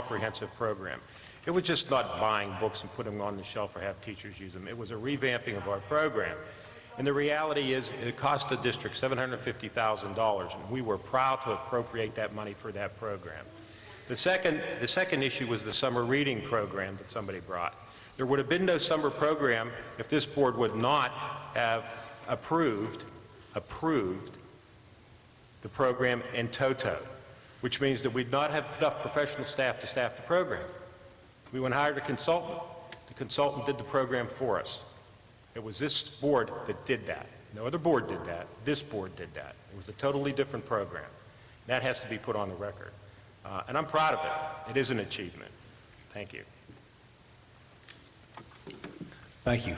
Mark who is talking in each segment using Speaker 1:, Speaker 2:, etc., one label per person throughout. Speaker 1: comprehensive program. It was just not buying books and putting them on the shelf or have teachers use them. It was a revamping of our program. And the reality is, it cost the district $750,000, and we were proud to appropriate that money for that program. The second, the second issue was the summer reading program that somebody brought. There would have been no summer program if this board would not have approved, approved the program in toto, which means that we'd not have enough professional staff to staff the program. We went and hired a consultant. The consultant did the program for us. It was this board that did that. No other board did that. This board did that. It was a totally different program. That has to be put on the record. Uh, And I'm proud of it. It is an achievement. Thank you.
Speaker 2: Thank you.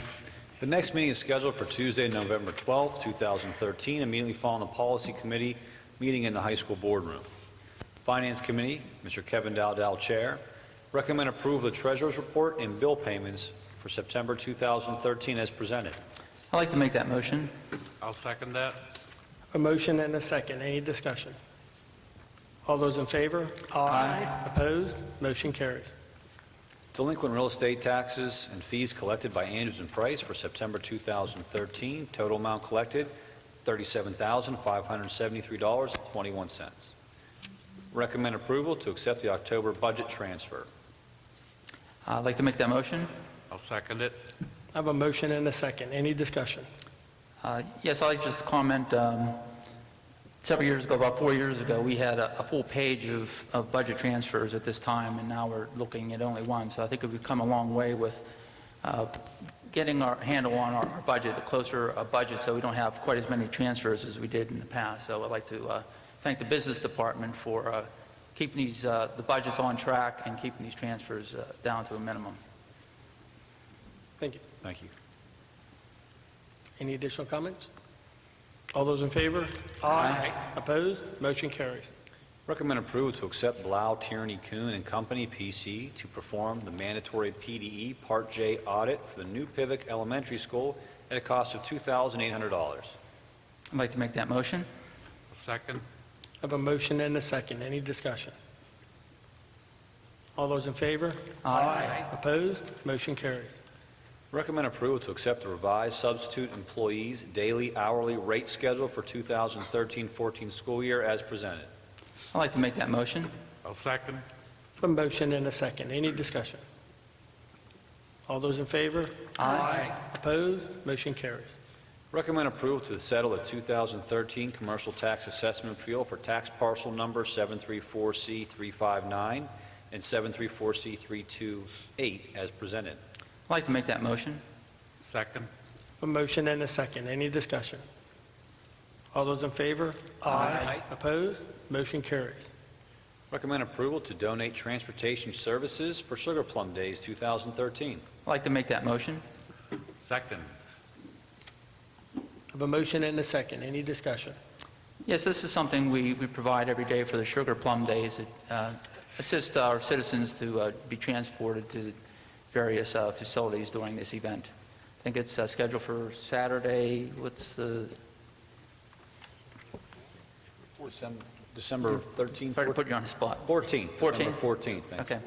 Speaker 2: The next meeting is scheduled for Tuesday, November 12, 2013, immediately following the Policy Committee meeting in the high school boardroom. Finance Committee, Mr. Kevin Dowdell, Chair, recommend approval of the Treasurer's Report and bill payments for September 2013 as presented.
Speaker 3: I'd like to make that motion.
Speaker 4: I'll second that.
Speaker 5: A motion and a second. Any discussion? All those in favor?
Speaker 3: Aye.
Speaker 5: Opposed? Motion carries.
Speaker 2: Delinquent real estate taxes and fees collected by Andrews and Price for September 2013, total amount collected, $37,573.21. Recommend approval to accept the October budget transfer.
Speaker 3: I'd like to make that motion.
Speaker 4: I'll second it.
Speaker 5: I have a motion and a second. Any discussion?
Speaker 3: Uh, Yes, I'd like just to comment, um, several years ago, about four years ago, we had a a full page of of budget transfers at this time, and now we're looking at only one. So I think we've come a long way with uh, getting our handle on our our budget, a closer uh, budget, so we don't have quite as many transfers as we did in the past. So I'd like to uh, thank the business department for uh, keeping these, uh, the budgets on track and keeping these transfers uh, down to a minimum.
Speaker 5: Thank you.
Speaker 2: Thank you.
Speaker 5: Any additional comments? All those in favor?
Speaker 3: Aye.
Speaker 5: Opposed? Motion carries.
Speaker 2: Recommend approval to accept Blau Tierney Coon and Company, P.C., to perform the mandatory PDE Part J audit for the new Pivot Elementary School at a cost of $2,800.
Speaker 3: I'd like to make that motion.
Speaker 4: I'll second.
Speaker 5: I have a motion and a second. Any discussion? All those in favor? Opposed? Motion carries.
Speaker 2: Recommend approval to accept the revised substitute employees' daily hourly rate schedule for 2013-14 school year as presented.
Speaker 3: I'd like to make that motion.
Speaker 4: I'll second.
Speaker 5: A motion and a second. Any discussion? All those in favor? Opposed? Motion carries.
Speaker 2: Recommend approval to settle the 2013 commercial tax assessment appeal for tax parcel number 734C359 and 734C328 as presented.
Speaker 3: I'd like to make that motion.
Speaker 4: Second.
Speaker 5: A motion and a second. Any discussion? All those in favor?
Speaker 3: Aye.
Speaker 5: Opposed? Motion carries.
Speaker 2: Recommend approval to donate transportation services for Sugar Plum Days 2013.
Speaker 3: I'd like to make that motion.
Speaker 4: Second.
Speaker 5: I Have a motion and a second. Any discussion?
Speaker 3: Yes, this is something we, we provide every day for the Sugar Plum Days, uh, assist our citizens to uh, be transported to various uh, facilities during this event. I think it's uh, scheduled for Saturday, what's the,
Speaker 2: December 13th?
Speaker 3: sorry to put you on the spot.
Speaker 2: 14th.
Speaker 3: 14th.
Speaker 2: December 14th. Thank you.
Speaker 3: Okay.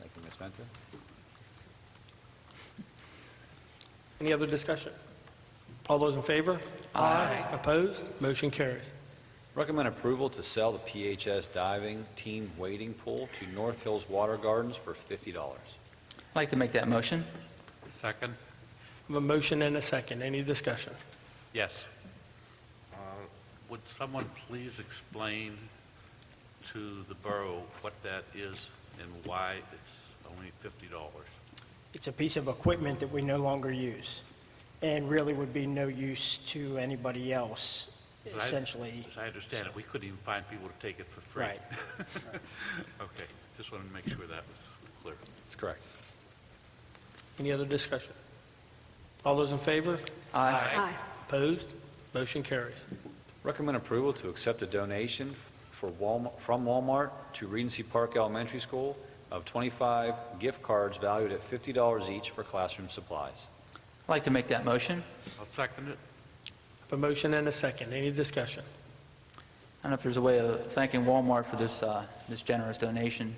Speaker 2: Thank you, Ms. Menta.
Speaker 5: Any other discussion? All those in favor? Aye. Opposed? Motion carries.
Speaker 2: Recommend approval to sell the PHS Diving Team Wading Pool to North Hills Water Gardens for $50.
Speaker 3: I'd like to make that motion.
Speaker 4: Second.
Speaker 5: I Have a motion and a second. Any discussion?
Speaker 4: Yes. Uh, Would someone please explain to the borough what that is and why it's only $50?
Speaker 6: It's a piece of equipment that we no longer use, and really would be no use to anybody else,
Speaker 4: Right.
Speaker 6: essentially.
Speaker 4: As I understand it, we couldn't even find people to take it for free.
Speaker 6: Right.
Speaker 4: Okay, just wanted to make sure that was clear.
Speaker 2: That's correct.
Speaker 5: Any other discussion? All those in favor?
Speaker 3: Aye.
Speaker 5: Opposed? Motion carries.
Speaker 2: Recommend approval to accept a donation for Walmart, from Walmart to Regency Park Elementary School of 25 gift cards valued at $50 each for classroom supplies.
Speaker 3: I'd like to make that motion.
Speaker 4: I'll second it.
Speaker 5: I Have a motion and a second. Any discussion?
Speaker 3: I don't know if there's a way of thanking Walmart for this, uh, this generous donation.